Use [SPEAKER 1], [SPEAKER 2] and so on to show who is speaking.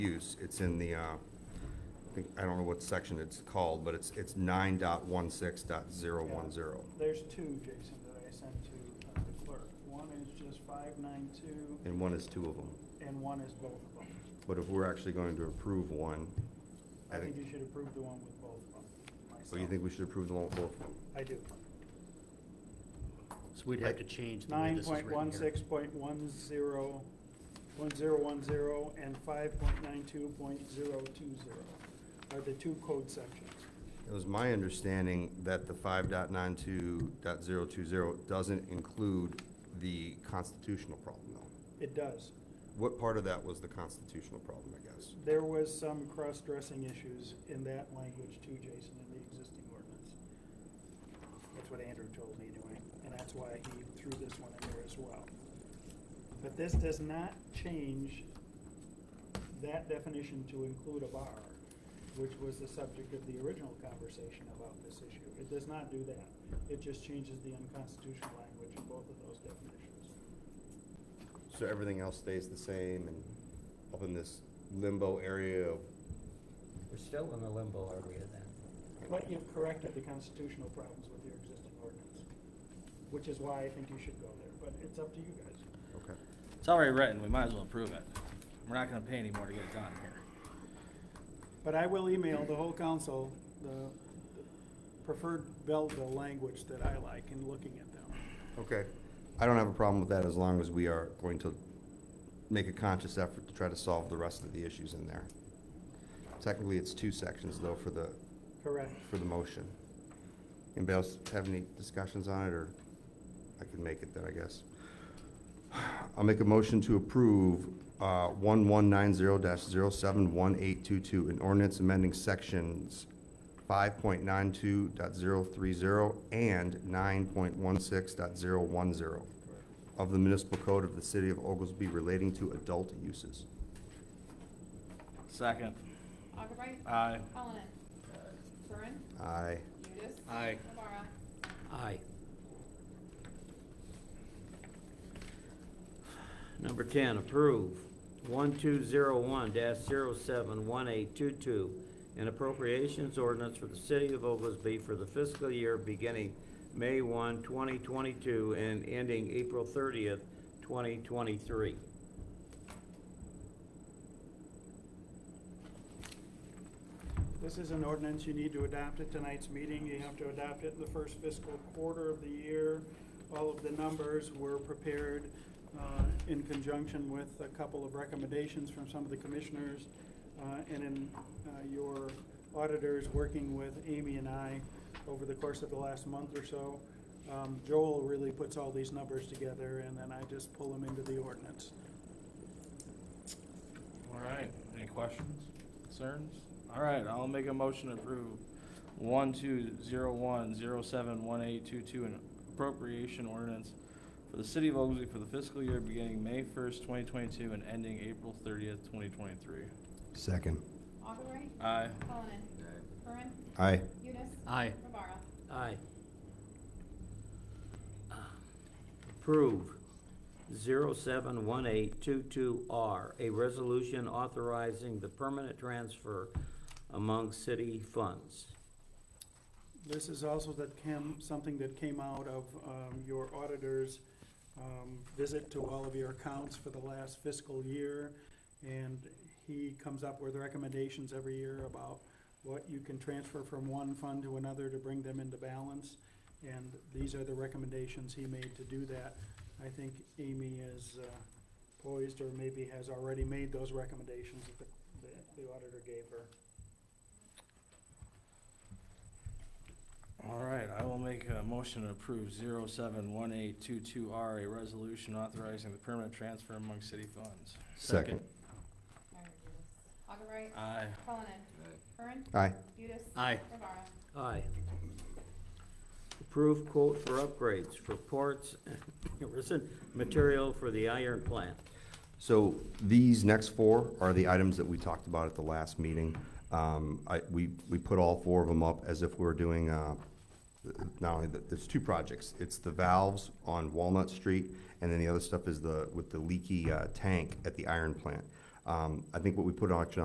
[SPEAKER 1] use. It's in the, uh, I think- I don't know what section it's called, but it's, it's nine dot one six dot zero one zero.
[SPEAKER 2] There's two, Jason, that I sent to uh, the clerk. One is just five nine two,
[SPEAKER 1] And one is two of them.
[SPEAKER 2] and one is both of them.
[SPEAKER 1] But if we're actually going to approve one,
[SPEAKER 2] I think you should approve the one with both of them.
[SPEAKER 1] So you
[SPEAKER 2] myself.
[SPEAKER 1] think we should approve the one with both?
[SPEAKER 2] I do.
[SPEAKER 3] So we'd have to change the way
[SPEAKER 2] Nine
[SPEAKER 3] this is
[SPEAKER 2] point
[SPEAKER 3] written
[SPEAKER 2] one
[SPEAKER 3] here.
[SPEAKER 2] six point one zero, one zero one zero, and five point nine two point zero two zero are the two code sections.
[SPEAKER 1] It was my understanding that the five dot nine two dot zero two zero doesn't include the constitutional problem though.
[SPEAKER 2] It does.
[SPEAKER 1] What part of that was the constitutional problem, I guess?
[SPEAKER 2] There was some cross-dressing issues in that language too, Jason, in the existing ordinance. That's what Andrew told me anyway, and that's why he threw this one in there as well. But this does not change that definition to include a bar, which was the subject of the original conversation about this issue. It does not do that. It just changes the unconstitutional language in both of those definitions.
[SPEAKER 1] So everything else stays the same and up in this limbo area of
[SPEAKER 4] We're still in the limbo area then.
[SPEAKER 2] But you've corrected the constitutional problems with your existing ordinance, which is why I think you should go there, but it's up to you guys.
[SPEAKER 1] Okay.
[SPEAKER 5] It's already written, we might as well approve it. We're not gonna pay anymore to get it done here.
[SPEAKER 2] But I will email the whole council the preferred Belleville language that I like in looking at them.
[SPEAKER 1] Okay. I don't have a problem with that as long as we are going to make a conscious effort to try to solve the rest of the issues in there. Technically, it's two sections though for the,
[SPEAKER 2] Correct.
[SPEAKER 1] for the motion. Anybody else have any discussions on it or I can make it then, I guess. I'll make a motion to approve uh, 1190-071822, an ordinance amending sections 5.92.030 and 9.16.010 of the municipal code of the city of Oglesby relating to adult uses.
[SPEAKER 5] Second,
[SPEAKER 6] Augubright.
[SPEAKER 5] Aye.
[SPEAKER 6] Cullinan. Curran.
[SPEAKER 1] Aye.
[SPEAKER 6] Udis.
[SPEAKER 5] Aye.
[SPEAKER 6] Rivera.
[SPEAKER 4] Aye. Number ten, approve one two zero one dash zero seven one eight two two, an appropriations ordinance for the city of Oglesby for the fiscal year beginning May 1, 2022, and ending April thirtieth, twenty twenty-three.
[SPEAKER 2] This is an ordinance, you need to adopt at tonight's meeting, you have to adopt it in the first fiscal quarter of the year. All of the numbers were prepared uh, in conjunction with a couple of recommendations from some of the commissioners, uh, and in uh, your auditors, working with Amy and I over the course of the last month or so. Um, Joel really puts all these numbers together, and then I just pull them into the ordinance.
[SPEAKER 5] all right, any questions, concerns? All right, I'll make a motion to approve one two zero one zero seven one eight two two an appropriation ordinance for the city of Oglesby for the fiscal year beginning May first, twenty twenty-two and ending April thirtieth, twenty twenty-three.
[SPEAKER 1] Second.
[SPEAKER 6] Augubright.
[SPEAKER 5] Aye.
[SPEAKER 6] Cullinan. Curran.
[SPEAKER 1] Aye.
[SPEAKER 6] Udis.
[SPEAKER 3] Aye.
[SPEAKER 6] Rivera.
[SPEAKER 4] Aye. Approve 071822R, a resolution authorizing the permanent transfer among city funds.
[SPEAKER 2] This is also that came, something that came out of um, your auditor's um, visit to all of your accounts for the last fiscal year. And he comes up with recommendations every year about what you can transfer from one fund to another to bring them into balance. And these are the recommendations he made to do that. I think Amy is uh, poised or maybe has already made those recommendations that the- that the auditor gave her.
[SPEAKER 5] All right, I will make a motion to approve zero seven one eight two two R, a resolution authorizing the permanent transfer among city funds.
[SPEAKER 1] Second.
[SPEAKER 6] Augubright.
[SPEAKER 5] Aye.
[SPEAKER 6] Cullinan. Curran.
[SPEAKER 1] Aye.
[SPEAKER 6] Udis.
[SPEAKER 3] Aye.
[SPEAKER 6] Rivera.
[SPEAKER 4] Aye. Approve quote for upgrades for ports, resin material for the iron plant.
[SPEAKER 1] So these next four are the items that we talked about at the last meeting. Um, I, we, we put all four of them up as if we were doing, uh, not only, the- there's two projects. It's the valves on Walnut Street, and then the other stuff is the, with the leaky, uh, tank at the iron plant. Um, I think what we put on action